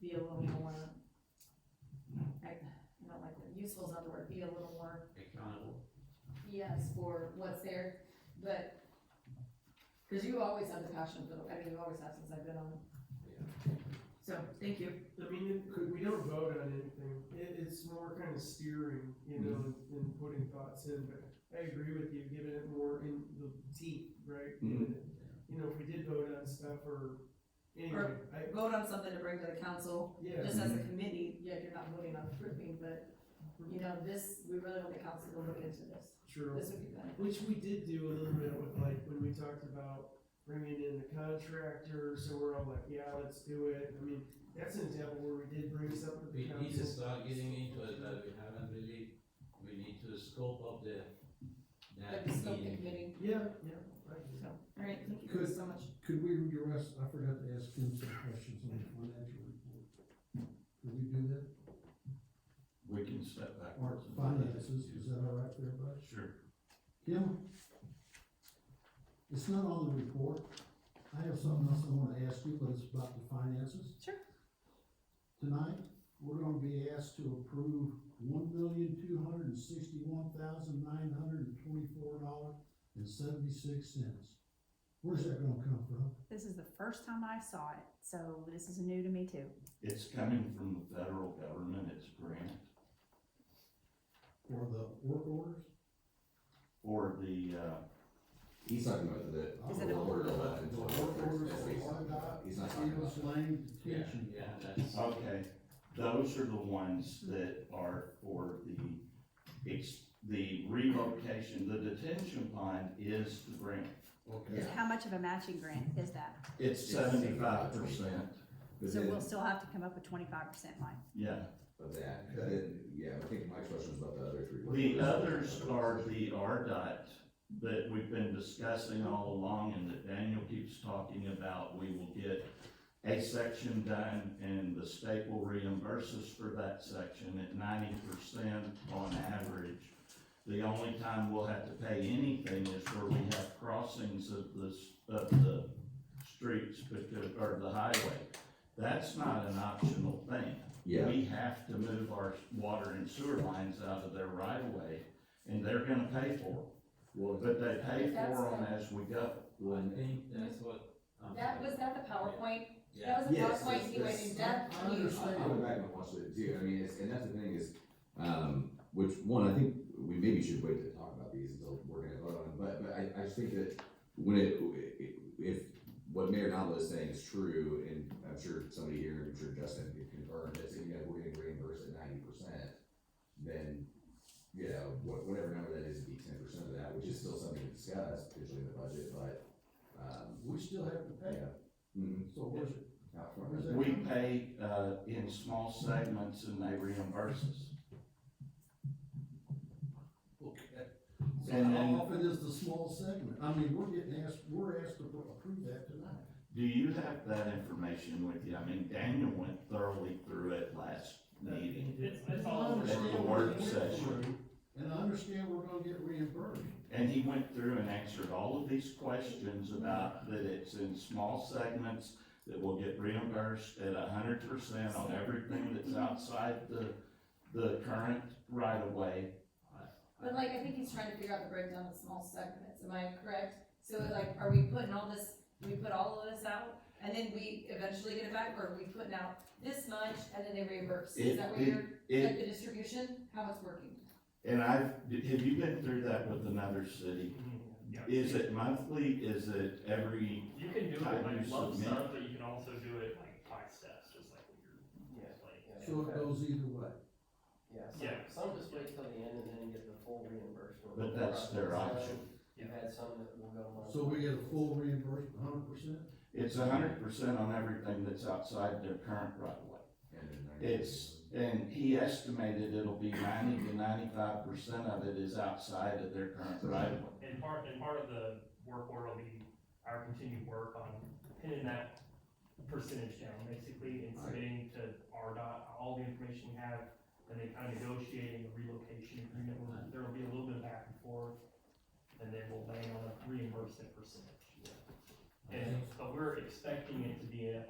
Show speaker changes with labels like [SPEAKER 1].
[SPEAKER 1] be a little more, I, I don't like, that. useful is not the word, be a little more
[SPEAKER 2] accountable.
[SPEAKER 1] yes for what's there, but, cause you always have the passion for, the- I mean, you always have since I've been on. So, thank you.
[SPEAKER 3] I mean, it- could- we don't vote on anything, it, it's more kind of steering, you know, and, and putting thoughts in, but I agree with you, giving it more in the deep, right? Giving it- You know, if we did vote on stuff or, anyway, I,
[SPEAKER 1] Vote on something to bring to the council,
[SPEAKER 3] yeah,
[SPEAKER 1] just as a committee, yeah, you're not voting on approving, but, you know, this, we really want the council to look into this.
[SPEAKER 3] true.
[SPEAKER 1] This would be good.
[SPEAKER 3] Which we did do a little bit with, like, when we talked about bringing in the contractor, so we're all like, yeah, let's do it, I mean, that's an example where we did bring something to
[SPEAKER 2] We
[SPEAKER 3] the
[SPEAKER 2] need to
[SPEAKER 3] council.
[SPEAKER 2] start getting into it, but we haven't really, we need to scope up the,
[SPEAKER 1] But
[SPEAKER 2] that
[SPEAKER 1] the scope of the
[SPEAKER 2] meeting.
[SPEAKER 1] committee,
[SPEAKER 3] Yeah, yeah, right.
[SPEAKER 1] so, alright, thank you guys so much.
[SPEAKER 4] Could we address, I forgot to ask him some questions on the financial report. Could we do that?
[SPEAKER 5] We can step back.
[SPEAKER 4] Or finances, is that all right for everybody?
[SPEAKER 5] Sure.
[SPEAKER 4] Kim? It's not on the report. I have something else I wanna ask you, but it's about the finances.
[SPEAKER 1] Sure.
[SPEAKER 4] Tonight, we're gonna be asked to approve one million, two hundred and sixty-one thousand, nine hundred and twenty-four dollars and seventy-six cents. Where's that gonna come from?
[SPEAKER 6] This is the first time I saw it, so this is new to me too.
[SPEAKER 5] It's coming from the federal government, it's grant
[SPEAKER 4] For the work orders?
[SPEAKER 5] for the, uh,
[SPEAKER 7] He's talking about the.
[SPEAKER 6] Is it a-
[SPEAKER 7] the order of
[SPEAKER 4] The
[SPEAKER 7] eleven
[SPEAKER 4] work
[SPEAKER 7] twenty-four,
[SPEAKER 4] orders
[SPEAKER 7] that's what he's
[SPEAKER 4] for
[SPEAKER 7] talking about.
[SPEAKER 4] RDOT,
[SPEAKER 7] He's not talking about
[SPEAKER 4] Steelers Lane
[SPEAKER 2] Yeah,
[SPEAKER 4] detention.
[SPEAKER 2] yeah, that's,
[SPEAKER 5] uh, okay, those are the ones that are for the, it's the relocation, the detention pond is the grant.
[SPEAKER 7] Okay.
[SPEAKER 6] Is- How much of a matching grant is that?
[SPEAKER 5] It's
[SPEAKER 7] It's
[SPEAKER 5] seventy-five
[SPEAKER 7] 75%.
[SPEAKER 5] percent,
[SPEAKER 7] But
[SPEAKER 6] So we'll
[SPEAKER 7] then,
[SPEAKER 6] still have to come up with twenty-five percent line.
[SPEAKER 5] yeah.
[SPEAKER 7] but that, but then, yeah, I think my question was about the other three.
[SPEAKER 5] The others are the RDOT that we've been discussing all along and that Daniel keeps talking about. We will get a section done and the state will reimburse us for that section at ninety percent on average. The only time we'll have to pay anything is where we have crossings of the, s- of the streets because, or the highway. That's not an optional thing
[SPEAKER 7] Yeah,
[SPEAKER 5] we have to move our water and sewer lines out of their right of way, and they're gonna pay for them,
[SPEAKER 7] well,
[SPEAKER 5] but they pay for them as we go.
[SPEAKER 2] I
[SPEAKER 7] when,
[SPEAKER 2] think that's what. I'm
[SPEAKER 1] That,
[SPEAKER 2] talking
[SPEAKER 1] was that the PowerPoint?
[SPEAKER 2] Yeah,
[SPEAKER 1] That was a
[SPEAKER 7] Yes,
[SPEAKER 1] PowerPoint
[SPEAKER 7] yes,
[SPEAKER 1] you went
[SPEAKER 7] yes.
[SPEAKER 1] in depth.
[SPEAKER 4] I understand.
[SPEAKER 7] I, I went back and watched it too, I mean, it's, and that's the thing is, um, which, one, I think we maybe should wait to talk about these until we're gonna vote on them, but, but I, I just think that when it, if what Mayor Nava is saying is true, and I'm sure somebody here, I'm sure Justin can confirm this, if you guys were getting reimbursed at ninety percent, then, you know, wha- whatever number that is, it'd be ten percent of that, which is still something to discuss, potentially in the budget, but, um,
[SPEAKER 4] We still have to pay it,
[SPEAKER 7] yeah. Mhm.
[SPEAKER 4] so where's it?
[SPEAKER 7] Out front.
[SPEAKER 4] Where's that
[SPEAKER 5] We pay, uh, in small segments and they reimburse us.
[SPEAKER 4] Okay. So
[SPEAKER 5] And
[SPEAKER 4] how
[SPEAKER 5] then-
[SPEAKER 4] often is the small segment? I mean, we're getting asked, we're asked to approve that tonight.
[SPEAKER 5] Do you have that information with you? I mean, Daniel went thoroughly through it last meeting.
[SPEAKER 3] It's,
[SPEAKER 4] I understand
[SPEAKER 5] At the
[SPEAKER 4] we're
[SPEAKER 5] work
[SPEAKER 4] getting
[SPEAKER 5] session.
[SPEAKER 4] reimbursed, And I understand we're gonna get reimbursed.
[SPEAKER 5] And he went through and answered all of these questions about that it's in small segments that will get reimbursed at a hundred percent on everything that's outside the, the current right of way.
[SPEAKER 1] But like, I think he's trying to figure out the breakdown of small segments, am I correct? So like, are we putting all this, we put all of this out, and then we eventually get it back, or are we putting out this much, and then they reimburse? Is
[SPEAKER 5] It-
[SPEAKER 1] that where you're, like,
[SPEAKER 5] It,
[SPEAKER 1] the distribution, how it's working?
[SPEAKER 5] and I've, have you been through that with another city?
[SPEAKER 8] Yeah.
[SPEAKER 5] Is it monthly? Is it every,
[SPEAKER 8] You can do it
[SPEAKER 5] Type
[SPEAKER 8] like
[SPEAKER 5] you
[SPEAKER 8] lump
[SPEAKER 5] submit.
[SPEAKER 8] sum, but you can also do it like five steps, just like what you're like.
[SPEAKER 4] So it goes either way.
[SPEAKER 9] Yeah, some,
[SPEAKER 8] Yeah.
[SPEAKER 9] some just wait till the end and then get the full reimbursement.
[SPEAKER 5] but that's their option.
[SPEAKER 9] You've had some that will go months.
[SPEAKER 4] So we get a full reimbursement, hundred percent?
[SPEAKER 5] It's a hundred percent on everything that's outside their current right of way.
[SPEAKER 7] And then ninety
[SPEAKER 5] It's, and he estimated it'll be ninety to ninety-five percent of it is outside of their current right of way.
[SPEAKER 8] And part, and part of the work order will be our continued work on pinning that percentage down, basically, and submitting to RDOT all the information we have, and then kind of negotiating a relocation agreement, where there'll be a little bit of back and forth, and then we'll land on a reimbursement percentage. And, but we're expecting it to be a